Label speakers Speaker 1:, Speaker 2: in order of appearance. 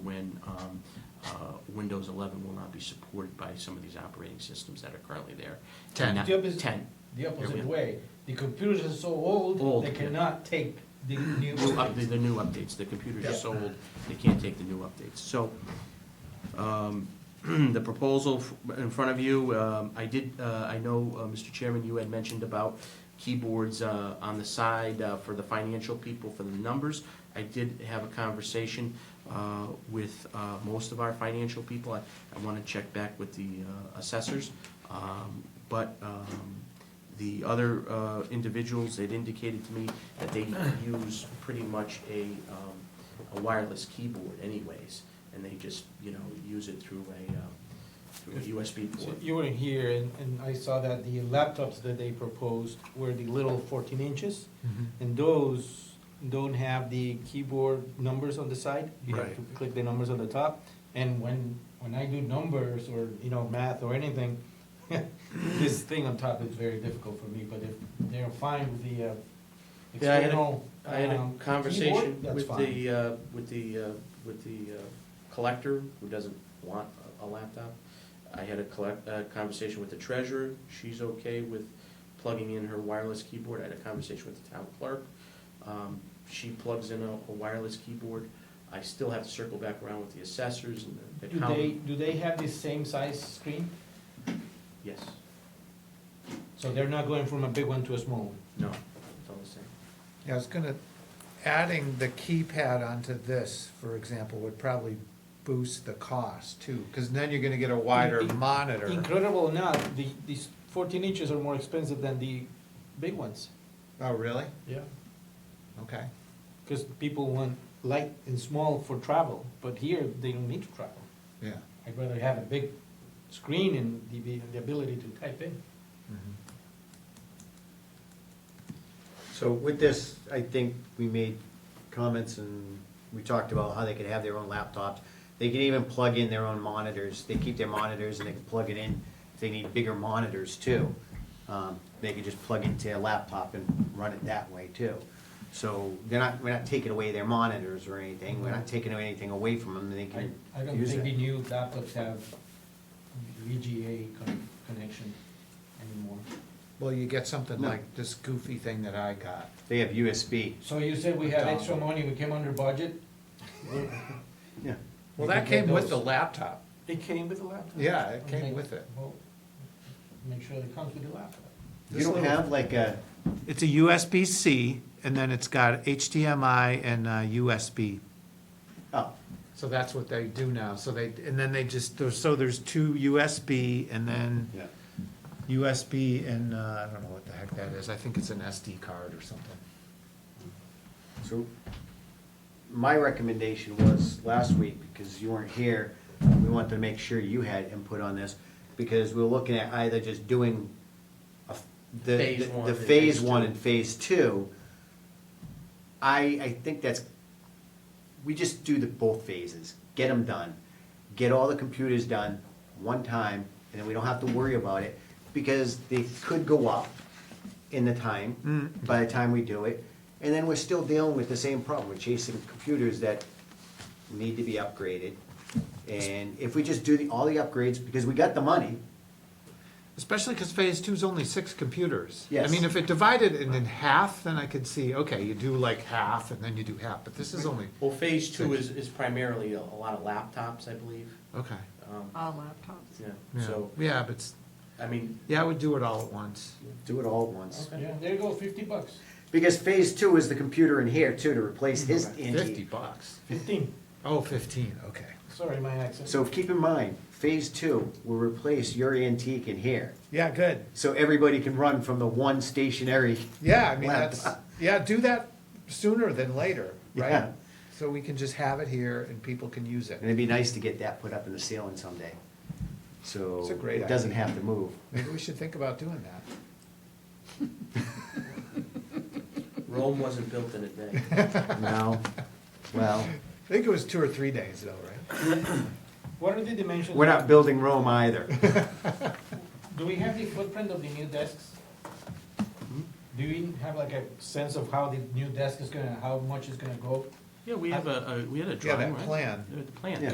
Speaker 1: when um, uh, Windows 11 will not be supported by some of these operating systems that are currently there. And
Speaker 2: 10.
Speaker 1: that-
Speaker 3: The opposite-
Speaker 1: 10.
Speaker 3: The
Speaker 1: Yeah.
Speaker 3: opposite way, the computers are so old,
Speaker 1: Old,
Speaker 3: they
Speaker 1: yeah.
Speaker 3: cannot take the new.
Speaker 1: New up- The the new updates, the computers are
Speaker 3: Yeah.
Speaker 1: so old, they can't take the new updates. So um, the proposal f- in front of you, um, I did, uh, I know, uh, Mr. Chairman, you had mentioned about keyboards uh, on the side uh, for the financial people, for the numbers. I did have a conversation uh, with uh, most of our financial people. I I want to check back with the uh, assessors. Um, But um, the other uh, individuals, they'd indicated to me that they use pretty much a um, a wireless keyboard anyways, and they just, you know, use it through a um, through a USB
Speaker 3: So
Speaker 1: port.
Speaker 3: You were here, and, and I saw that the laptops that they proposed were the little fourteen inches, and those don't have the keyboard numbers on the side. You have
Speaker 2: Right.
Speaker 3: to click the numbers on the top, and when, when I do numbers or, you know, math or anything, this thing on top is very difficult for me, but if they're fine with the uh,
Speaker 1: Yeah, I had a-
Speaker 3: external.
Speaker 1: I had a
Speaker 3: um,
Speaker 1: conversation
Speaker 3: keyboard, that's
Speaker 1: with
Speaker 3: fine.
Speaker 1: the, uh, with the, uh, with the uh, collector, who doesn't want a a laptop. I had a collect, a conversation with the treasurer, she's okay with plugging in her wireless keyboard. I had a conversation with the town clerk, Um, she plugs in a a wireless keyboard. I still have to circle back around with the assessors and the
Speaker 3: Do
Speaker 1: accountant.
Speaker 3: they, do they have the same size screen?
Speaker 1: Yes,
Speaker 3: So they're not going from a big one to a small one?
Speaker 1: no, it's all the same.
Speaker 2: Yeah, I was gonna, adding the keypad onto this, for example, would probably boost the cost too, because then you're gonna get a wider
Speaker 3: In- in-
Speaker 2: monitor.
Speaker 3: Incredible or not, the, these fourteen inches are more expensive than the big ones.
Speaker 2: Oh, really?
Speaker 3: Yeah.
Speaker 2: Okay.
Speaker 3: Because people want light and small for travel, but here they don't need to travel.
Speaker 2: Yeah.
Speaker 3: I'd rather have a big screen and the, the- the ability to type in.
Speaker 2: Mm-hmm.
Speaker 4: So with this, I think we made comments and we talked about how they could have their own laptops. They can even plug in their own monitors. They keep their monitors and they can plug it in. If they need bigger monitors too, um, they can just plug into a laptop and run it that way too. So they're not, we're not taking away their monitors or anything. We're not taking anything away from them. They
Speaker 3: I,
Speaker 4: can
Speaker 3: I don't
Speaker 4: use
Speaker 3: think the
Speaker 4: it.
Speaker 3: new laptops have VGA con- connection anymore.
Speaker 2: Well, you get something
Speaker 4: No.
Speaker 2: like this goofy thing that I got.
Speaker 4: They have USB.
Speaker 3: So you said we had extra money, we came under budget?
Speaker 4: Yeah.
Speaker 3: You can
Speaker 2: Well, that
Speaker 3: get
Speaker 2: came with the
Speaker 3: those.
Speaker 2: laptop.
Speaker 3: It came with the laptop?
Speaker 2: Yeah, it came
Speaker 3: Okay,
Speaker 2: with it.
Speaker 3: well, Make sure it comes with the laptop.
Speaker 4: You
Speaker 2: This
Speaker 4: don't
Speaker 2: little-
Speaker 4: have like a,
Speaker 2: It's a USB-C, and then it's got HDMI and uh, USB.
Speaker 4: oh,
Speaker 2: So that's what they do now, so they, and then they just, there's- so there's two USB and then
Speaker 4: yeah.
Speaker 2: USB and, uh, I don't know what the heck that is, I think it's an SD card or something.
Speaker 4: So, my recommendation was last week, because you weren't here, we wanted to make sure you had input on this, because we we're looking at either just doing a f- the,
Speaker 1: Phase
Speaker 4: the-
Speaker 1: one
Speaker 4: the
Speaker 1: and
Speaker 4: phase
Speaker 1: phase
Speaker 4: one
Speaker 1: two.
Speaker 4: and phase two. I, I think that's, we just do the both phases, get them done, get all the computers done one time, and then we don't have to worry about it, because they could go up, in the time, by the time we do it. And then we're still dealing with the same problem, we're chasing computers that need to be upgraded. And if we just do the, all the upgrades, because we got the money,
Speaker 2: Especially because phase two's only six computers. I
Speaker 4: Yes.
Speaker 2: mean, if it divided it in half, then I could see, okay, you do like half and then you do half, but this is only,
Speaker 1: Well, phase two is, is primarily a a lot of laptops, I believe.
Speaker 2: okay.
Speaker 1: Um,
Speaker 5: All laptops.
Speaker 1: Yeah,
Speaker 2: Yeah,
Speaker 1: so,
Speaker 2: Yeah, but, s-
Speaker 1: I mean,
Speaker 2: yeah, I would do it all at once.
Speaker 4: do it all at once.
Speaker 3: Yeah, there you go, fifty bucks,
Speaker 4: Because phase two is the computer in here too, to replace his
Speaker 2: Mm-hmm. Fifty
Speaker 4: antique.
Speaker 2: bucks.
Speaker 3: fifteen,
Speaker 2: Oh, fifteen, okay.
Speaker 3: sorry, my accent.
Speaker 4: So keep in mind, phase two will replace your antique in here.
Speaker 2: Yeah, good.
Speaker 4: So everybody can run from the one stationary.
Speaker 2: Yeah, I mean, that's,
Speaker 4: Laptop.
Speaker 2: yeah, do that sooner than later, right?
Speaker 4: Yeah.
Speaker 2: So we can just have it here and people can use
Speaker 4: And
Speaker 2: it.
Speaker 4: it'd be nice to get that put up in the ceiling someday. So
Speaker 2: It's a great
Speaker 4: it doesn't
Speaker 2: idea.
Speaker 4: have to move.
Speaker 2: Maybe we should think about doing that.
Speaker 1: Rome wasn't built in a day.
Speaker 4: No, well,
Speaker 2: I think it was two or three days though, right?
Speaker 3: What are the dimensions?
Speaker 4: we're not building Rome either.
Speaker 3: Do we have the footprint of the new desks?
Speaker 2: Hmm?
Speaker 3: Do we have like a sense of how the new desk is gonna, how much it's gonna go?
Speaker 2: Yeah, we have a, a- we had a
Speaker 3: Yeah,
Speaker 2: drawing,
Speaker 3: that
Speaker 2: right?
Speaker 3: plan.
Speaker 2: Uh, The plan.
Speaker 1: Yeah.